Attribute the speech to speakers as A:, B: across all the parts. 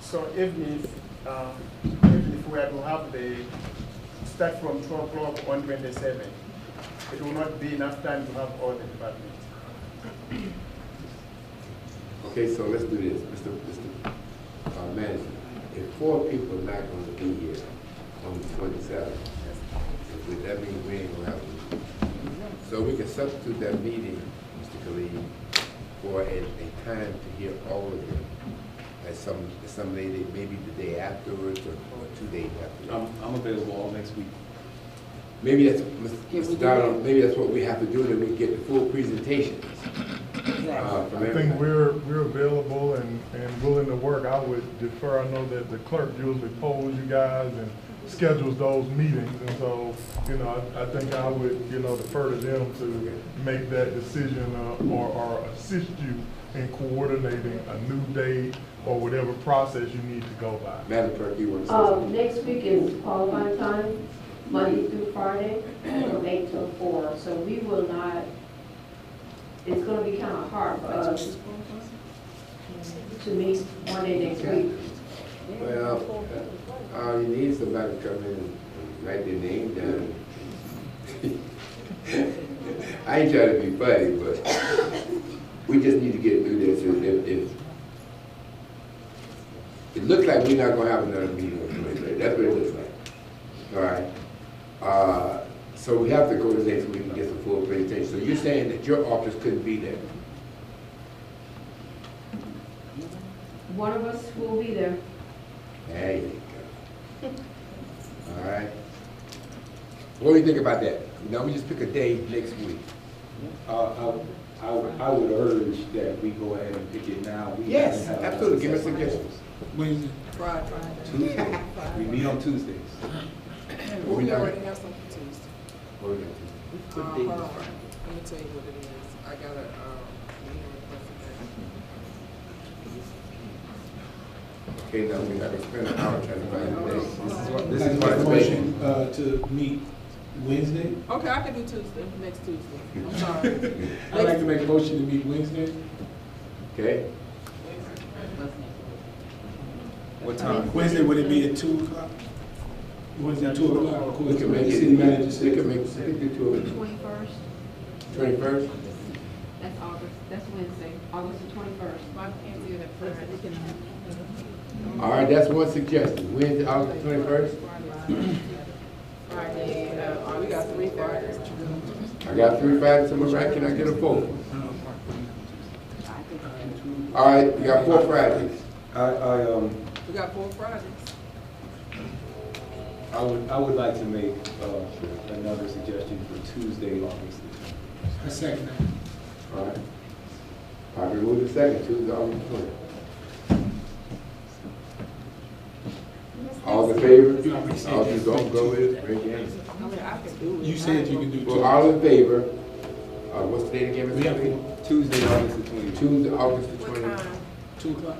A: So evening, um, even if we are to have the, start from twelve o'clock on twenty-seven, it will not be enough time to have all the departments.
B: Okay, so let's do this, Mr. Mr. uh, Manager. If four people are not gonna be here on the twenty-seventh, then that means we ain't gonna have a meeting. So we can substitute that meeting, Mr. Khalid, for a, a time to hear all of them. At some, at some later, maybe the day afterwards or, or two days
C: I'm,
B: afterwards.
C: I'm available all next week.
B: Maybe that's, Mr. Donald, maybe that's what we have to do, that we get the full presentations. uh, from
D: I think
B: everybody.
D: we're, we're available and, and willing to work. I would defer, I know that the clerk usually polls you guys and schedules those meetings. And so, you know, I, I think I would, you know, defer to them to make that decision uh, or, or assist you in coordinating a new date or whatever process you need to go by.
B: Madam Clerk, you want to say
E: Uh,
B: something?
E: next week is qualifying time, Monday through Friday, from eight till four, so we will not, it's gonna be kinda hard for us to meet Monday next week.
B: Well, uh, all you need is somebody to come in and write their name down. I ain't trying to be funny, but we just need to get through this, and if, if, it looks like we're not gonna have another meeting on Wednesday, that's what it looks like, all right? Uh, so we have to go to next week and get the full presentation, so you're saying that your office couldn't be there?
E: One of us will be there.
B: There you go. All right. What do you think about that? Now, we just pick a day next week.
C: Uh, I, I would- I would urge that we go ahead and pick it now. We
B: Yes,
C: haven't had a
B: absolutely. Give us
C: successful
B: suggestions.
F: Wednesday.
G: Friday.
C: Tuesday. We meet on Tuesdays.
B: What we
G: We
B: got?
G: already have something Tuesday.
B: What we gonna
G: Uh, hold on, let me tell you what it is. I got a, um, meeting
B: do? Okay,
G: request today.
B: now we're not gonna spend an hour trying to find a day. This is what, this
F: Like
B: is
F: make
B: what
F: a
B: it's
F: motion,
B: been.
F: Uh, to meet Wednesday.
G: Okay, I can do Tuesday, next Tuesday. I'm sorry.
F: I'd like to make a motion to meet Wednesday.
B: Okay?
C: What time?
F: Wednesday, would it be at two o'clock? Wednesday, at two o'clock, of
B: We
F: course,
B: can
F: the
B: make it,
F: city manager
B: we
F: said.
B: can make, we can do two of them.
E: Twenty-first,
B: Twenty-first?
E: that's August, that's Wednesday, August the twenty-first.
G: Why can't do that Friday?
B: All right, that's one suggestion. Wednesday, August twenty-first?
G: Friday, uh, we got three Fridays.
B: I got three fives, someone right, can I get a four? All right, we got four Fridays.
C: I, I, um,
G: We got four Fridays.
C: I would, I would like to make, uh, another suggestion for Tuesday, August the twentieth.
F: I second
B: All right. Probably move the second, Tuesday, August twenty. All in favor?
F: You already said
B: All you don't go with, raise your hand.
G: I mean, I can do
F: that.
G: it.
F: You said you can do
B: Well,
F: two.
B: all in favor, uh, what's the date again,
F: We have
B: Mr. Lee?
C: Tuesday, August the twentieth.
B: Tuesday, August the
G: What
B: twentieth.
G: time?
F: Two o'clock?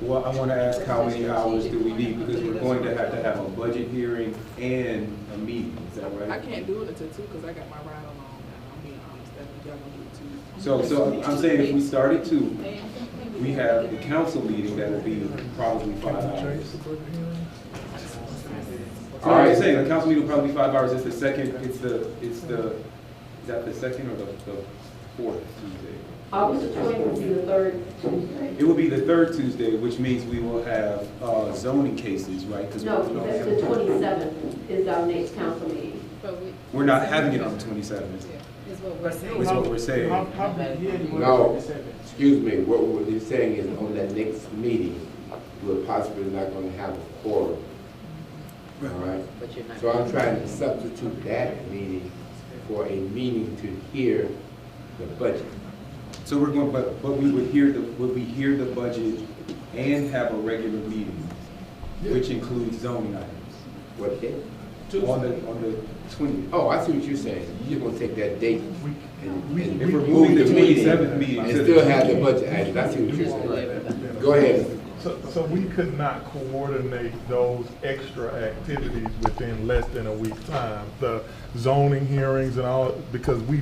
C: Well, I wanna ask how many hours do we need, because we're going to have to have a budget hearing and a meeting, is that
G: I
C: right?
G: can't do it until two, cause I got my ride along now. I'm being honest, that's what y'all gonna do Tuesday.
C: So, so I'm saying if we start at two, we have the council meeting that will be probably five hours. So
B: All
C: I'm
B: right.
C: just saying, the council meeting will probably be five hours, it's the second, it's the, it's the, is that the second or the, the fourth Tuesday?
E: August the twentieth will be the third Tuesday.
C: It will be the third Tuesday, which means we will have, uh, zoning cases, right? 'Cause
E: No, that's the twenty-seventh is our next council meeting.
C: We're not having it on the twenty-seventh. That's what we're saying.
A: Have, have the hearing on
B: No.
A: twenty-seventh.
B: Excuse me, what we're saying is on that next meeting, we're possibly not gonna have a quorum. All right? So I'm trying to substitute that meeting for a meeting to hear the budget.
C: So we're going, but, but we would hear the, would we hear the budget and have a regular meeting, which includes zoning items?
B: What day?
C: On the, on the twentieth.
B: Oh, I see what you're saying. You're gonna take that date and
D: We-
B: and
C: If we're
B: move
C: moving the
B: meeting
C: twenty-seventh meeting
B: And
C: to
B: still
C: the,
B: have the budget items. I see what you're saying. Go ahead.
D: So, so we could not coordinate those extra activities within less than a week's time, the zoning hearings and all, because we